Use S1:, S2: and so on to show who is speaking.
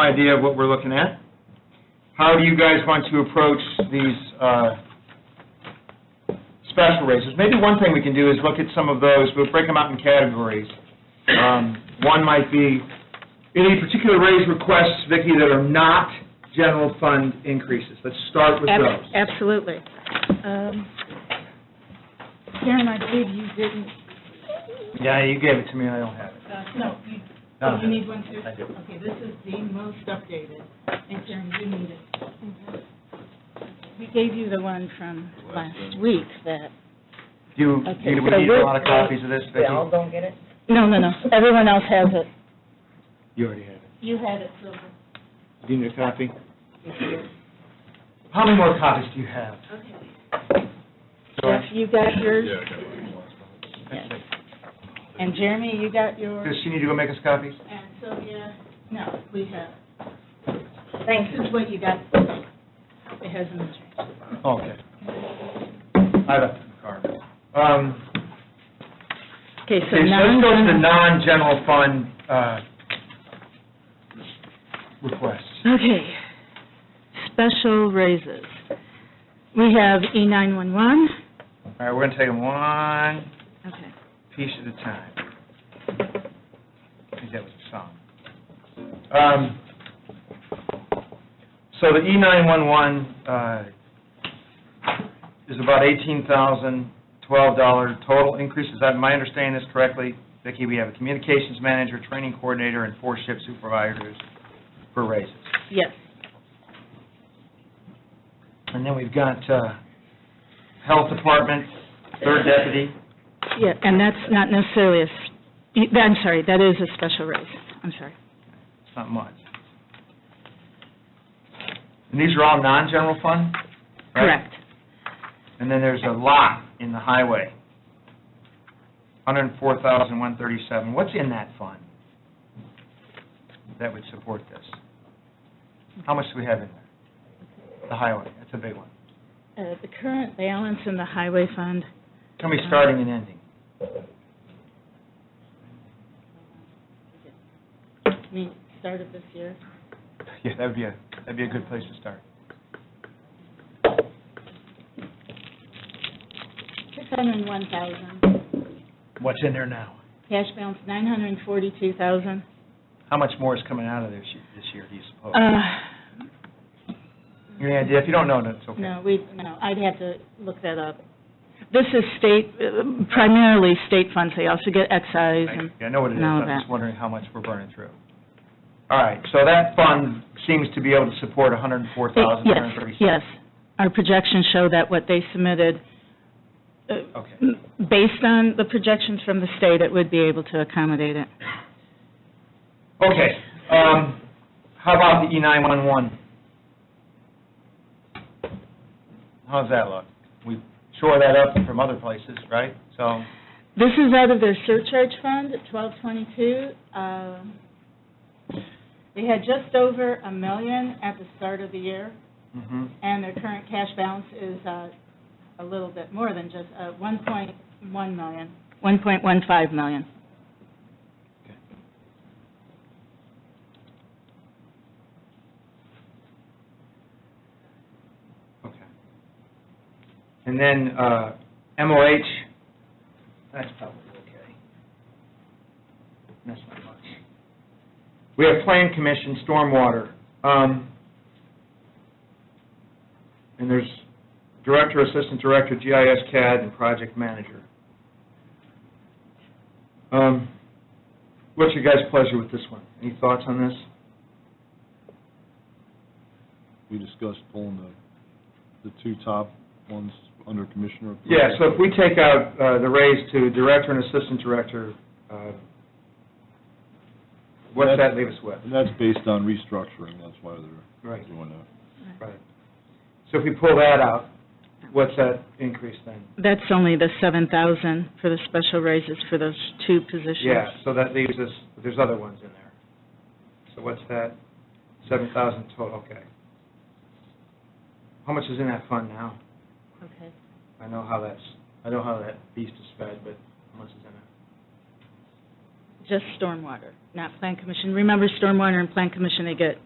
S1: idea of what we're looking at. How do you guys want to approach these uh, special raises? Maybe one thing we can do is look at some of those, we'll break them out in categories. Um, One might be, any particular raise requests, Vicki, that are not general fund increases? Let's start with
S2: Ab-
S1: those.
S2: Absolutely. Um, Karen, I believe you didn't,
S1: Yeah, you gave it to me, and I don't have it.
S3: Uh, No, you,
S1: No.
S3: oh, you need one too?
S1: I do.
S3: Okay, this is the most updated, and Karen, you need it.
S2: we gave you the one from last week that,
S1: Do you,
S2: Okay,
S1: do we
S2: so
S1: need a
S2: we're-
S1: lot of copies of this,
S4: They
S1: Vicki?
S4: all don't get it?
S2: no, no, no, everyone else has it.
S1: You already have it.
S2: You had it, Silver.
S1: Do you need a copy? How many more copies do you have?
S2: Jeff, you got yours?
S5: Yeah, I got one.
S2: Yes. And Jeremy, you got yours?
S1: Does she need to go make us copies?
S3: And Sylvia, no, we have,
S4: Thank
S3: this
S4: you.
S3: is what you got. It hasn't been changed.
S1: Okay. I left it in the car. Um,
S2: Okay, so
S1: Okay, so let's go to the
S2: non,
S1: non-general fund uh, requests.
S2: okay, special raises. We have E E911,
S1: All right, we're going to take them one
S2: okay,
S1: piece at a time. I think that was a song. Um, So the E E911 uh, is about $18,012 total increase. Is that, am I understanding this correctly? Vicki, we have a communications manager, training coordinator, and four shift supervisors for raises.
S2: yes.
S1: And then we've got uh, Health Department, third deputy.
S2: Yeah, and that's not necessarily a, s- y- I'm sorry, that is a special raise, I'm sorry.
S1: It's not much. And these are all non-general fund? right?
S2: Correct.
S1: And then there's a lot in the highway, 104,137. What's in that fund that would support this? How much do we have in there? The highway, that's a big one.
S2: Uh, The current balance in the highway fund,
S1: Tell me starting and ending.
S2: I mean, start of this year,
S1: Yeah, that'd be a, that'd be a good place to start.
S2: six hundred and one thousand.
S1: What's in there now?
S2: Cash balance, nine hundred and forty-two thousand.
S1: How much more is coming out of this year, this year, do you suppose?
S2: Uh,
S1: You have any idea? If you don't know, that's okay.
S2: no, we, no, I'd have to look that up. This is state, uh, primarily state funds, they also get excise and,
S1: I I know what it is,
S2: None of
S1: I'm just
S2: that.
S1: wondering how much we're burning through. All right, so that fund seems to be able to support 104,000,
S2: yes, yes. Our projections show that what they submitted, uh,
S1: Okay.
S2: based on the projections from the state, it would be able to accommodate it.
S1: Okay, um, how about the E E911? How's that look? We shore that up from other places, right? So,
S2: This is out of their surcharge fund, at 1222. Um, They had just over a million at the start of the year,
S1: mhm.
S2: and their current cash balance is uh, a little bit more than just uh, 1.1 million, 1.15 million.
S1: Okay. And then uh, MOH, that's probably okay. That's not much. We have Plan Commission, Stormwater. um, And there's Director, Assistant Director, GIS CAD, and Project Manager. Um, What's your guys' pleasure with this one? Any thoughts on this?
S5: We discussed pulling the, the two top ones under commissioner. approval.
S1: Yeah, so if we take out uh, the raise to director and assistant director, uh, what does that leave us with?
S5: And that's based on restructuring, that's why they're
S1: Right.
S5: doing that.
S1: Right. So if we pull that out, what's that increase then?
S2: That's only the 7,000 for the special raises for those two positions.
S1: Yeah, so that leaves us, there's other ones in there. So what's that? Seven thousand total, okay. How much is in that fund now?
S2: Okay.
S1: I know how that's, I know how that beast is fed, but how much is in it?
S2: Just stormwater, not plan commission. Remember, stormwater and plan commission, they get